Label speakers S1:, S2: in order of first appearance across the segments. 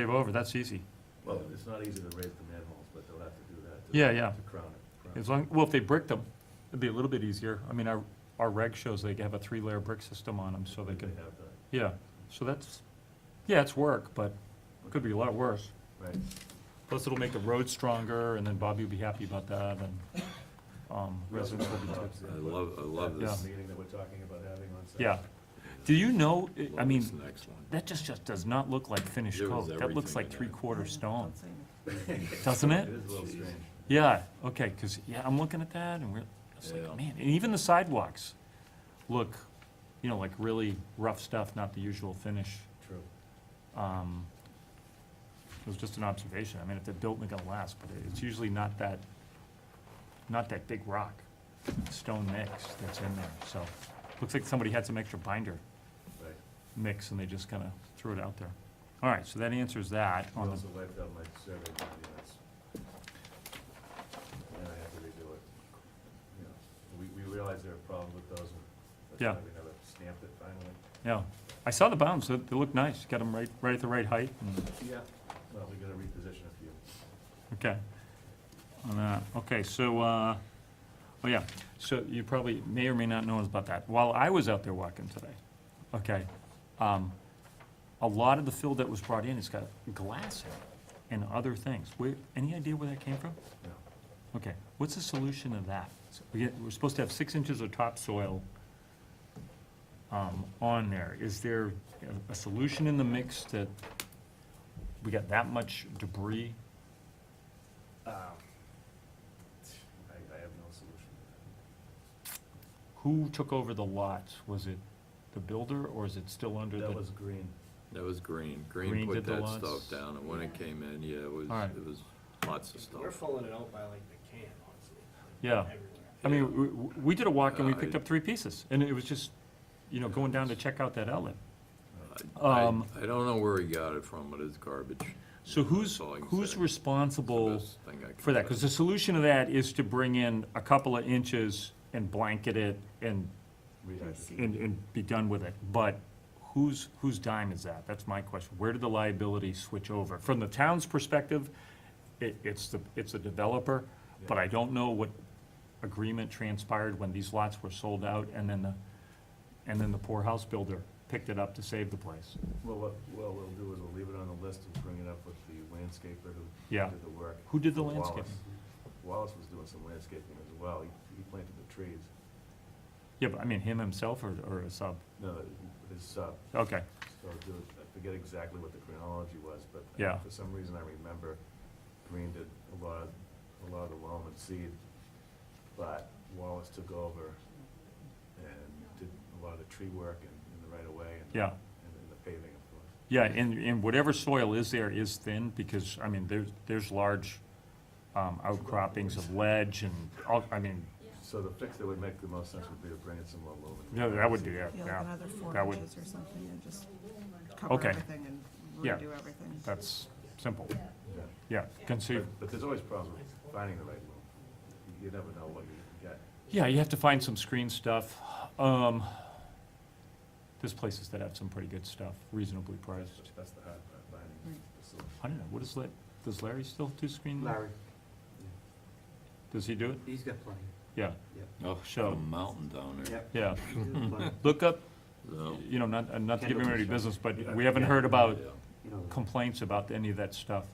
S1: Pave over, that's easy.
S2: Well, it's not easy to raise the manholes, but they'll have to do that. to-
S1: Yeah, yeah.
S2: To crown it. crown it.
S1: As long, well, if they brick them, it'd be a little bit easier. I mean, our, our reg shows they have a three-layer brick system on them, so they
S2: They
S1: can,
S2: have that,
S1: yeah. So that's, yeah, it's work, but it could be a lot worse.
S2: right.
S1: Plus, it'll make the road stronger, and then Bobby will be happy about that, and, um, residents will be tipped.
S3: I love, I love
S1: Yeah.
S3: this.
S2: Meeting that we're talking about having on Saturday.
S1: Yeah. Do you know, I
S3: Love
S1: mean,
S3: this next one.
S1: that just, just does not look like finished
S3: There was
S1: coat. That looks
S3: everything
S1: like
S3: in there.
S1: three-quarter stone, doesn't
S2: It
S1: it?
S2: is a little strange.
S1: Yeah, okay, because, yeah, I'm looking at that and we're, it's
S3: Yeah.
S1: like, man, and even the sidewalks look, you know, like really rough stuff, not the usual finish.
S2: True.
S1: Um, It was just an observation. I mean, if they're built, they're gonna last, but it's usually not that, not that big rock, stone mix that's in there, so. Looks like somebody had some extra binder
S2: Right.
S1: mix and they just kind of threw it out there. All right, so that answers that
S2: You
S1: on the
S2: also wiped out my survey documents. And I had to redo it. You know, We, we realized there were problems with those. and that's
S1: Yeah.
S2: why We never stamped it finally.
S1: Yeah, I saw the bounds, they, they look nice, got them right, right at the right height, and-
S2: Yeah. Well, we gotta reposition a few.
S1: okay. On that, okay, so, uh, oh yeah, so you probably may or may not know about that. While I was out there walking today, okay, um, a lot of the fill that was brought in has got glass in it and other things. Where, any idea where that came from?
S2: No.
S1: Okay, what's the solution to that? So We get, we're supposed to have six inches of topsoil um, on there. Is there a- a solution in the mix that we got that much debris?
S2: Um, I, I have no solution to that.
S1: Who took over the lots? Was it the builder or is it still under the?
S2: That was green.
S3: That was Green.
S1: Green
S3: Green
S1: did
S3: put
S1: the
S3: that
S1: lots.
S3: stuff down, and when it came in, yeah, it was,
S1: Alright.
S3: it was lots of
S4: We're
S3: stuff.
S4: filling it out by like the can, honestly.
S1: Yeah.
S4: Everywhere.
S1: I mean, we, we did a walk and we
S3: Uh,
S1: picked
S3: I-
S1: up three pieces and it was just, you know, going down to check out that outlet.
S3: I- Uh, I
S1: Um,
S3: I don't know where he got it from, but it's garbage.
S1: So who's,
S3: That's all I can
S1: who's
S3: say.
S1: responsible?
S3: Best thing I can
S1: for that,
S3: say.
S1: because the solution to that is to bring in a couple of inches and blanket it and,
S2: Rehydrated.
S1: and, and be done with it. But whose, whose dime is that? That's my question. Where did the liability switch over? From the town's perspective, it, it's the, it's the developer, but I don't know what agreement transpired when these lots were sold out and then the, and then the poor house builder picked it up to save the place.
S2: Well, what, what we'll do is we'll leave it on the list and bring it up with the landscaper who
S1: Yeah.
S2: did the work.
S1: Who did the
S2: Wallace.
S1: landscaping?
S2: Wallace was doing some landscaping as well. He, he planted the trees.
S1: Yeah, but I mean, him himself or, or a sub?
S2: No, his uh, sub.
S1: Okay,
S2: So do, I forget exactly what the chronology was, but
S1: Yeah.
S2: for some reason I remember Green did a lot, a lot of the loam and seed. But Wallace took over and did a lot of the tree work and, and the right of way and. the-
S1: yeah.
S2: And then the paving, of course.
S1: Yeah, and, and whatever soil is there is thin, because, I mean, there's, there's large um, outcroppings of ledge and, all- I mean,
S2: So the fix that would make the most sense would be to bring in some low lumen.
S1: yeah, that would do that,
S5: Yeah, like
S1: yeah.
S5: another four
S1: That would-
S5: inches or something, and just cover
S1: Okay.
S5: everything and
S1: Yeah.
S5: redo everything.
S1: That's simple,
S2: Yeah.
S1: yeah, conceive,
S2: But- But there's always problems with finding the right loom. You- You never know what you can get.
S1: yeah, you have to find some screen stuff. Um, There's places that have some pretty good stuff, reasonably priced.
S2: That's the hard part, finding
S5: Right.
S2: the solution.
S1: I don't know, what is that, does Larry still do screen? Does he do it?
S6: He's got plenty.
S1: Yeah,
S3: Oh,
S1: So-
S3: a mountain down there.
S1: yeah.
S6: He's got plenty.
S1: Look up,
S3: So,
S1: you know, not, uh, not to give him any business, but we
S2: Yeah.
S1: haven't heard about
S3: yeah.
S6: You know,
S1: complaints about any of that stuff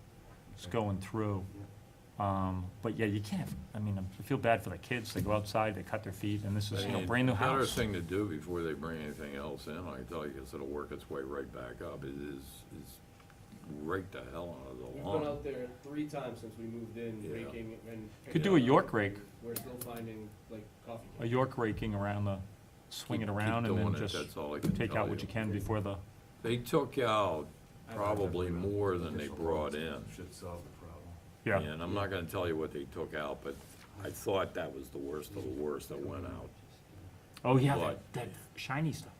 S1: that's going through. Um, but yeah, you can't, I mean, I feel bad for the kids, they go outside, they cut their feet, and this is, you know,
S3: And
S1: brand new
S3: Better
S1: house.
S3: thing to do before they bring anything else in, I tell you, 'cause it'll work its way right back up, it is, is rake the hell out of the
S7: We've
S3: lawn.
S7: been out there three times since we moved in,
S3: Yeah.
S7: raking and.
S1: Could do a York rake,
S7: We're still finding like coffee.
S1: a York raking around the, swing it
S3: Keep- keep
S1: around and then
S3: doing it,
S1: just
S3: that's all I can
S1: take
S3: tell
S1: out what you can before the,
S3: They took out
S2: I don't
S3: probably
S2: remember.
S3: more than they
S2: Additional
S3: brought in.
S2: loans Should solve the problem.
S1: yeah.
S3: And I'm not gonna tell you what they took out, but I thought that was the worst of the worst that went out.
S1: Oh, yeah, that-
S3: But-
S1: that shiny stuff,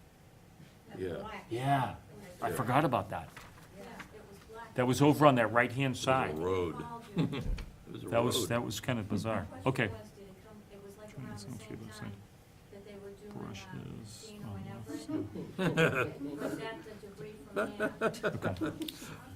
S3: Yeah,
S1: yeah, I
S3: Yeah.
S1: forgot about that.
S8: It was black.
S1: That was over on that right-hand
S3: it was a
S1: side,
S3: road.
S8: All during-
S3: It was a
S1: that was,
S3: road.
S1: that was kind of bizarre,
S8: Question
S1: okay.
S8: was, did it come- It was like
S1: Trying to
S8: around the
S1: see
S8: same
S1: what's in
S8: time that they were doing, um,
S1: Brushes,
S8: Dino
S1: um,
S8: and Everett. Was that the debris from there?
S1: Okay.